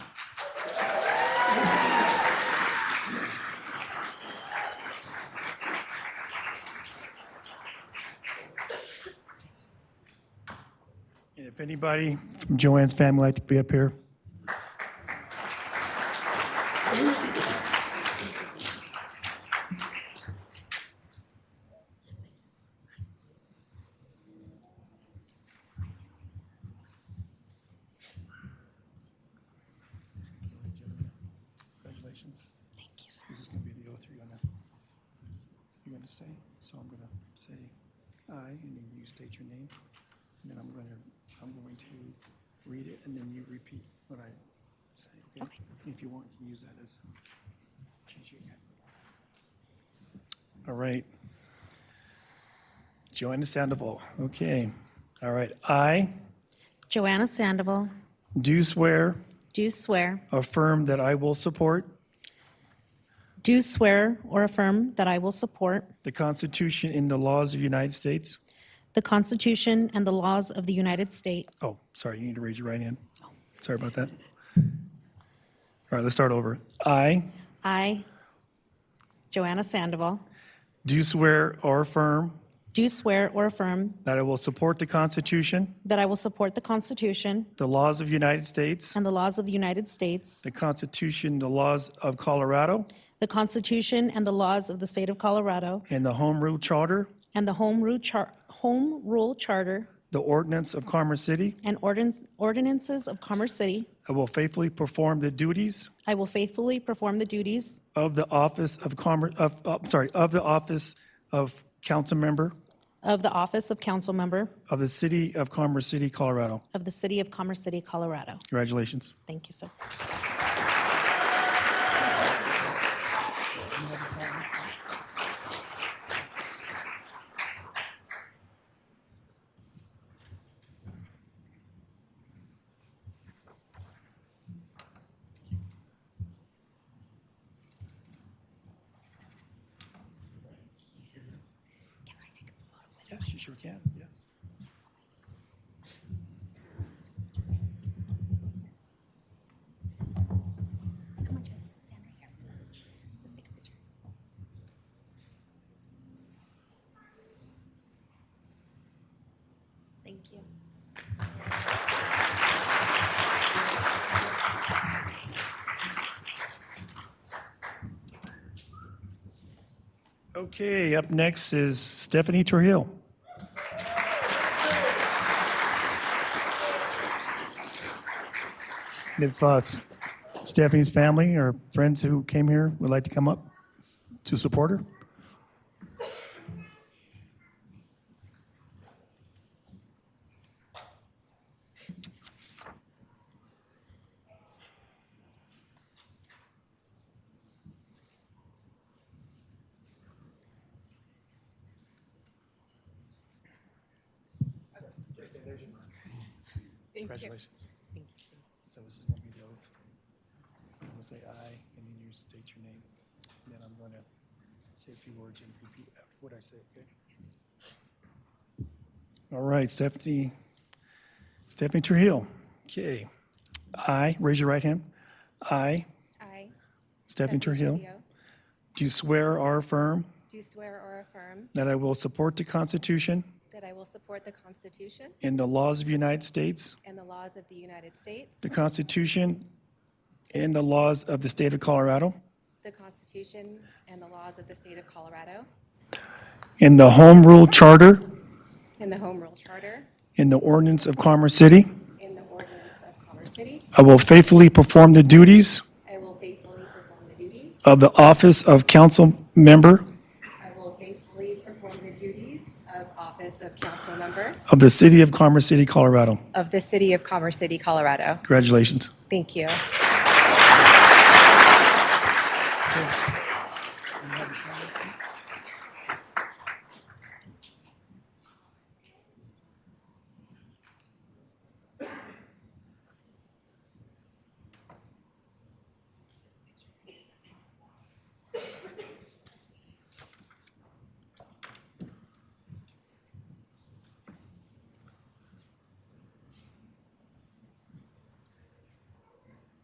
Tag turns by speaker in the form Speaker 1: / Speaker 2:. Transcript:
Speaker 1: Anybody from Joanne's family like to be up here? Congratulations.
Speaker 2: Thank you, sir.
Speaker 1: This is going to be the oath you're going to, you're going to say. So I'm going to say aye, and then you state your name. And then I'm going to, I'm going to read it, and then you repeat what I say, okay?
Speaker 2: Okay.
Speaker 1: If you want, you can use that as cheat sheet. All right. Joanna Sandoval, okay. All right, I
Speaker 2: Joanna Sandoval,
Speaker 1: do swear,
Speaker 2: do swear,
Speaker 1: affirm that I will support
Speaker 2: do swear or affirm that I will support
Speaker 1: the Constitution and the laws of the United States.
Speaker 2: the Constitution and the laws of the United States.
Speaker 1: Oh, sorry, you need to raise your right hand. Sorry about that. All right, let's start over. I
Speaker 2: I, Joanna Sandoval,
Speaker 1: do swear or affirm
Speaker 2: do swear or affirm
Speaker 1: that I will support the Constitution,
Speaker 2: that I will support the Constitution
Speaker 1: the laws of the United States,
Speaker 2: and the laws of the United States,
Speaker 1: the Constitution, the laws of Colorado,
Speaker 2: the Constitution and the laws of the State of Colorado,
Speaker 1: and the Home Rule Charter,
Speaker 2: and the Home Rule Char- Home Rule Charter
Speaker 1: the ordinance of Commerce City.
Speaker 2: and ordinance- ordinances of Commerce City.
Speaker 1: I will faithfully perform the duties
Speaker 2: I will faithfully perform the duties
Speaker 1: of the office of Commerce, of, of- sorry, of the office of council member
Speaker 2: of the office of council member
Speaker 1: of the city of Commerce City, Colorado.
Speaker 2: of the city of Commerce City, Colorado.
Speaker 1: Congratulations.
Speaker 2: Thank you, sir. Can I take a photo with
Speaker 1: Yes, you sure can, yes.
Speaker 2: Come on, Jesse, stand right here. Let's take a picture. Thank you.
Speaker 1: Okay, up next is Stephanie Trujillo. And if uh, S- Stephanie's family or friends who came here would like to come up to support her? Congratulations.
Speaker 2: Thank you, Steve.
Speaker 1: So this is going to be the oath. I'm going to say aye, and then you state your name. And then I'm going to say a few words and repeat after what I say, okay? All right, Stephanie, Stephanie Trujillo. Okay. I, raise your right hand. I,
Speaker 3: I,
Speaker 1: Stephanie Trujillo,
Speaker 3: Trujillo,
Speaker 1: do swear or affirm
Speaker 3: do swear or affirm
Speaker 1: that I will support the Constitution
Speaker 3: that I will support the Constitution
Speaker 1: and the laws of the United States,
Speaker 3: and the laws of the United States,
Speaker 1: the Constitution and the laws of the state of Colorado,
Speaker 3: the Constitution and the laws of the State of Colorado,
Speaker 1: and the Home Rule Charter
Speaker 3: and the Home Rule Charter,
Speaker 1: In the ordinance of Commerce City.
Speaker 3: and the ordinance of Commerce City.
Speaker 1: I will faithfully perform the duties
Speaker 3: I will faithfully perform the duties.
Speaker 1: of the office of council member
Speaker 3: I will faithfully perform the duties of office of council member
Speaker 1: of the city of Commerce City, Colorado.
Speaker 3: of the City of Commerce City, Colorado.
Speaker 1: Congratulations.
Speaker 3: Thank you.
Speaker 1: Okay.